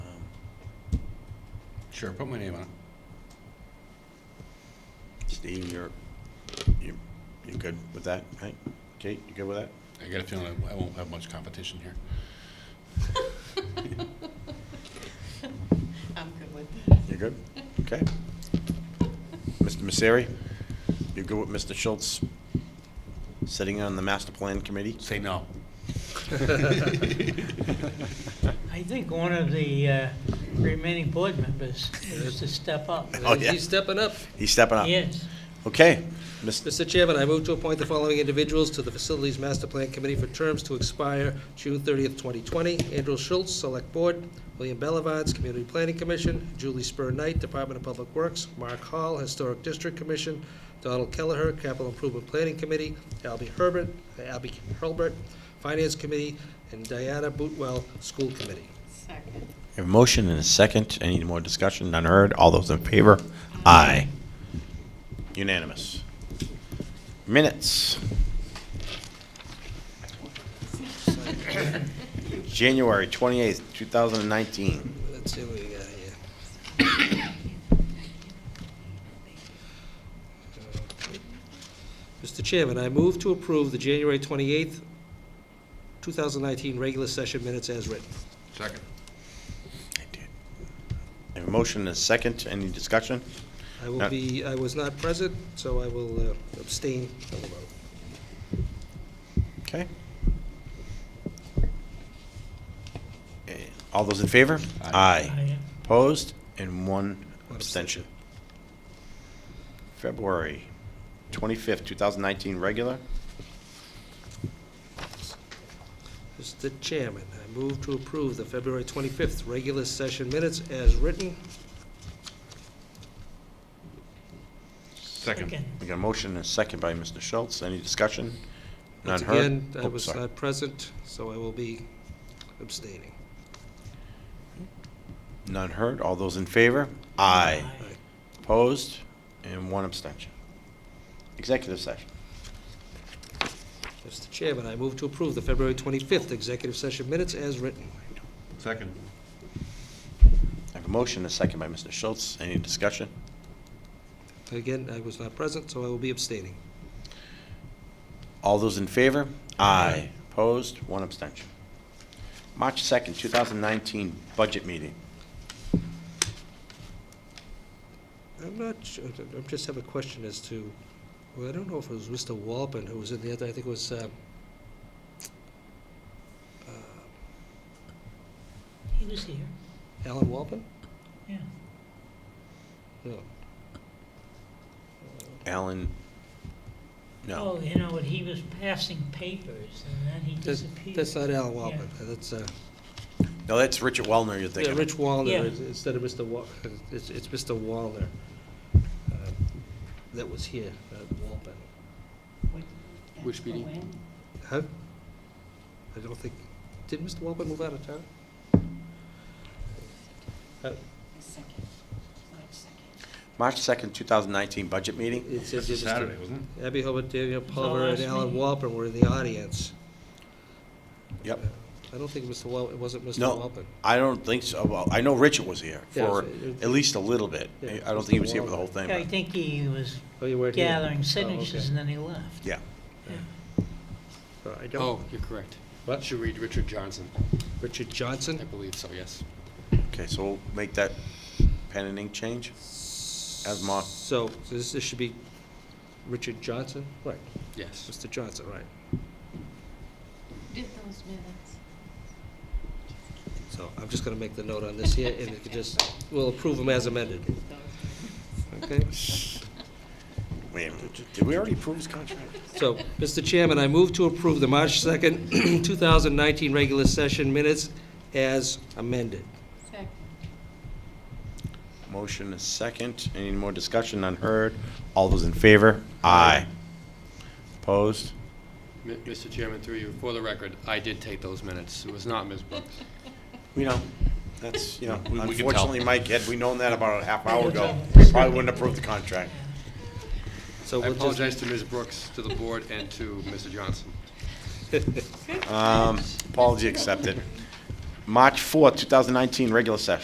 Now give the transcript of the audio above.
Um, Sure, put my name on it. Steve, you're, you you good with that, right? Kate, you good with that? I got a feeling I won't have much competition here. I'm good with that. You're good? Okay. Mr. Misery, you good with Mr. Schultz sitting on the master plan committee? Say no. I think one of the uh, remaining board members needs to step up. Oh, yeah. He's stepping up. He's stepping up. Yes. Okay. Mr. Mr. Chairman, I move to appoint the following individuals to the Facilities Master Plan Committee for terms to expire June 30th, 2020. Andrew Schultz, Select Board, William Bellavance, Community Planning Commission, Julie Spur Knight, Department of Public Works, Mark Hall, Historic District Commission, Donald Kelleher, Capital Improvement Planning Committee, Albie Herbert, Albie Hurlbert, Finance Committee, and Diana Bootwell, School Committee. Second. A motion and a second. Any more discussion? None heard. All those in favor? Aye. Unanimous. Minutes. January 28th, 2019. Let's see what we got here. Mr. Chairman, I move to approve the January 28th, 2019 regular session minutes as written. Second. I have a motion and a second. Any discussion? I Uh, will be, I was not present, so I will uh, abstain from the vote. Okay. Eh, All those in favor? Aye. I- Opposed? And one One abstention. abstention. February 25th, 2019, regular. Mr. Chairman, I move to approve the February 25th regular session minutes as written. Second. Again, We got a motion and a second by Mr. Schultz. Any discussion? None Once heard? again, I Oh, was sorry. not present, so I will be abstaining. None heard. All those in favor? Aye. Opposed? And one abstention. Executive session. Mr. Chairman, I move to approve the February 25th executive session minutes as written. Second. I have a motion and a second by Mr. Schultz. Any discussion? Again, I was not present, so I will be abstaining. All those in favor? Aye. Opposed? One abstention. March 2nd, 2019, budget meeting. I'm not, su- I am just have a question as to, well, I don't know if it was Mr. Walpin who was in the other, I think it was, uh, uh, He was here, Alan Walpin? yeah. No. Alan? No. Oh, you know, what? he was passing papers, and then he That's disappeared. that's not Alan Walpin, that's, uh, No, that's Richard Wellner you're yeah, thinking of. Rich Wallner, Yeah. is- instead of Mr. Wa, it's, it's Mr. Wallner uh, that was here, uh, not Walpin. Which Oh, meeting? Huh? I don't think, did Mr. Walpin move out of town? Uh, Second, March second. March 2nd, 2019, budget meeting. It says It's here a Mr. Saturday, wasn't Abby Hobart, Daniel our Palmer, and last Alan meeting. Walpin were in the audience. Uh, Yep. I don't think Mr. Wal, it wasn't Mr. No. Walpin. I don't think so. Well, I know Richard was here Yeah, for it was- at least a little bit. Yeah, I don't Mr. think he was here for the Wallner. whole thing. Yeah, I but- think he was Oh, you weren't here? gathering Oh, signatures, and then okay. he left. Yeah. So I it? don't, Oh, you're correct. What? Should read Richard Johnson, Richard I Johnson? believe so, yes. Okay, so we'll make that pen and ink change? As marked. So, so this, this should be Richard Johnson? Right, Yes. Mr. Johnson, right. Did those minutes. So I'm just gonna make the note on this here, and it could just, we'll approve them as amended, okay? Wait, a minute. did we already approve his contract? So, Mr. Chairman, I move to approve the March 2nd, 2019 regular session minutes as amended. Second. Motion is second. Any more discussion? None heard. All those in favor? Aye. Opposed? M- Mr. Chairman, through you, for the record, I did take those minutes. It was not Ms. Brooks. We know. That's, you know, We- we can tell. unfortunately, Mike, had we known that about a half hour ago, we probably wouldn't approve the contract. So I we'll just- apologize to Ms. Brooks, to the board, and to Mr. Johnson. Um, Apology accepted. March 4th, 2019, regular session.